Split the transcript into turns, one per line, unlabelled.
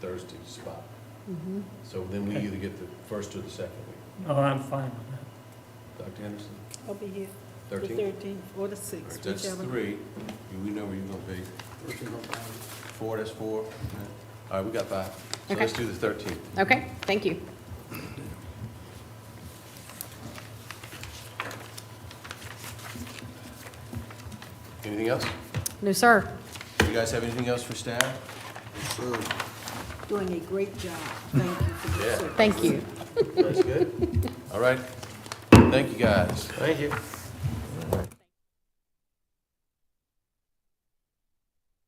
first spot.
Mm-hmm.
So then we
Okay.
either get the first or the second week.
Oh, I'm fine with
Dr. Henderson,
I'll be here the
thirteenth?
thirteenth or the
All right,
sixth,
that's
whichever.
three. You- We know where you're gonna be. Four, that's four. All right. All right, we got five. So
Okay.
let's do the thirteenth.
Okay, thank you.
Anything else?
No, sir.
You guys have anything else for staff?
Doing a great job. Thank you for your
Yeah.
service.
Thank you.
That's good. All right. Thank you, guys.
Thank you.